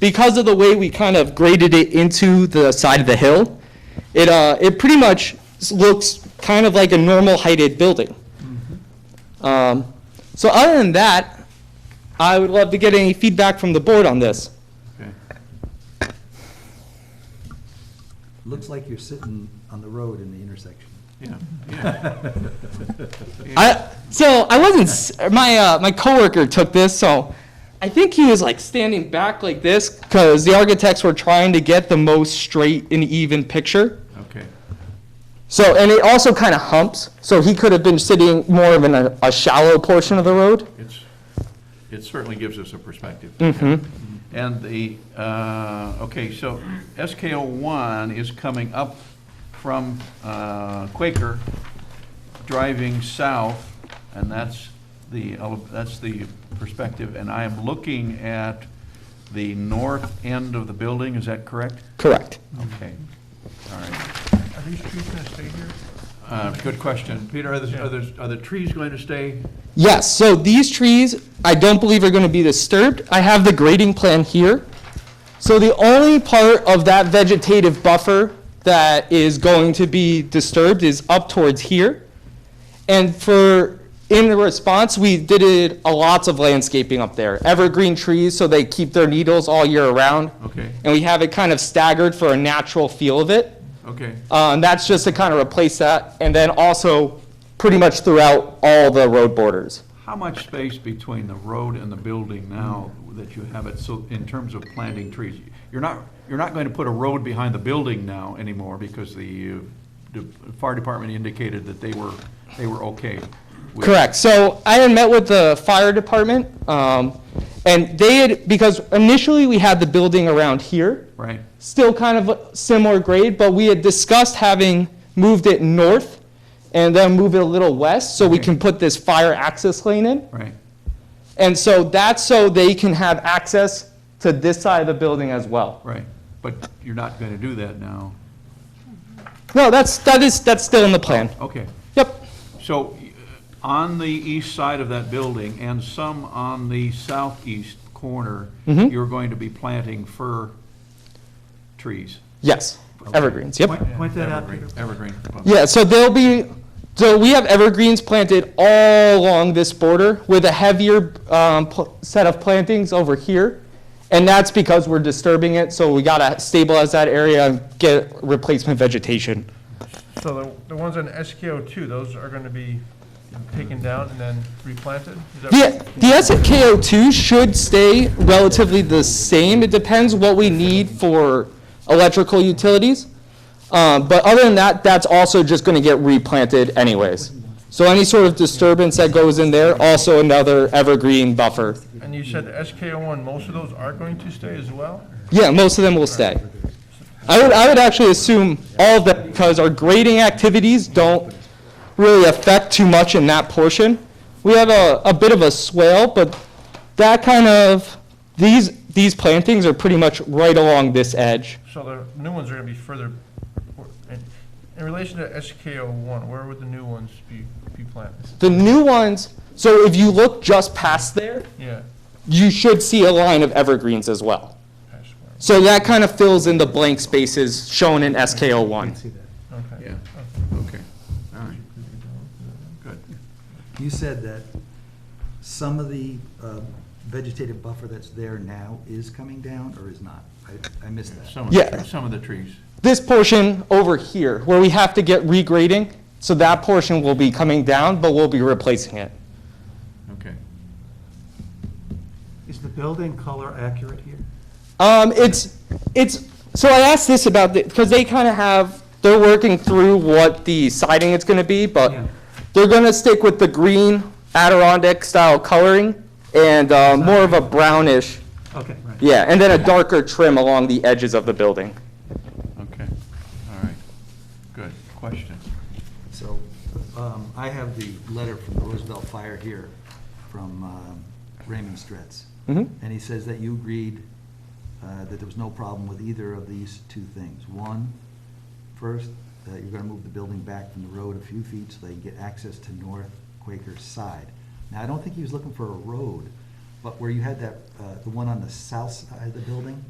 because of the way we kind of graded it into the side of the hill, it, uh, it pretty much s- looks kind of like a normal heighted building. Um, so other than that, I would love to get any feedback from the board on this. Okay. Looks like you're sitting on the road in the intersection. Yeah, yeah. I, so I wasn't. s- My uh, my coworker took this, so I think he was like standing back like this because the architects were trying to get the most straight and even picture. Okay, So and it also kind of humps, so he could have been sitting more of in a, a shallow portion of the road. it's, it certainly gives us a perspective. Mhm. And the, uh, okay, so SKO one is coming up from uh, Quaker, driving south, and that's the, ele- that's the perspective. And I am looking at the north end of the building, is that correct? Correct. Okay, all right. Are these trees gonna stay here? Uh, Good question. Peter, are the, are the- are the trees going to stay? Yes. So these trees, I don't believe are going to be disturbed. I have the grading plan here. So the only part of that vegetative buffer that is going to be disturbed is up towards here. And for, in the response, we did it, a lots of landscaping up there. Evergreen trees, so they keep their needles all year around. Okay. And we have it kind of staggered for a natural feel of it. Okay, Uh, and that's just to kind of replace that. And then also pretty much throughout all the road borders. how much space between the road and the building now that you have it, so in terms of planting trees? You're not, you're not going to put a road behind the building now anymore because the, uh, the fire department indicated that they were, they were okay. with- Correct. So I had met with the fire department, um, and they had, because initially we had the building around here, Right, still kind of a similar grade, but we had discussed having moved it north and then move it a little west so we Okay. can put this fire access lane in. right. And so that's so they can have access to this side of the building as well. Right, but you're not going to do that now. No, that's, that is, that's still in the plan. Okay. Yep. So, y- on the east side of that building and some on the southeast corner, you're going to be planting fir trees. Yes. Evergreens. Yep. Point point that out, Peter. Evergreen- Evergreen. Yeah, so there'll be, so we have evergreens planted all along this border with a heavier um, pl- set of plantings over here. And that's because we're disturbing it, so we gotta stabilize that area and get replacement vegetation. So the, the ones on SKO two, those are gonna be taken down and then replanted? Is that The, the SKO2 should stay relatively the same. It depends what we need for electrical utilities. Um, But other than that, that's also just going to get replanted anyways. So any sort of disturbance that goes in there, also another evergreen buffer. And you said the SKO one, most of those are going to stay as well? Yeah, most of them will stay. I would, I would actually assume all of them, because our grading activities don't really affect too much in that portion. We have a, a bit of a swale, but that kind of, these, these plantings are pretty much right along this edge. So the new ones are gonna be further, in, in relation to SKO one, where would the new ones be, be planted? The new ones, so if you look just past there, Yeah. you should see a line of evergreens as well. I swear. So that kind of fills in the blank spaces shown in SKO one. See that. Okay. Yeah, okay, all right. Good. You said that some of the uh, vegetative buffer that's there now is coming down or is not? I, I missed that. Some of, the Yeah. tre- some of the trees. this portion over here, where we have to get regrading, so that portion will be coming down, but we'll be replacing it. Okay. Is the building color accurate here? Um, it's, it's, so I asked this about, because they kind of have, they're working through what the siding it's gonna be, but Yeah. they're gonna stick with the green Adirondack style coloring and, uh, more of a brownish, Okay, right. yeah, and then a darker trim along the edges of the building. Okay, all right. Good, question. So um, I have the letter from the Roosevelt Fire here from um, Raymond Stretz. Mhm. And he says that you agreed uh, that there was no problem with either of these two things. One, first, that you're gonna move the building back from the road a few feet so they can get access to North Quaker's side. Now, I don't think he was looking for a road, but where you had that, uh, the one on the south side of the building,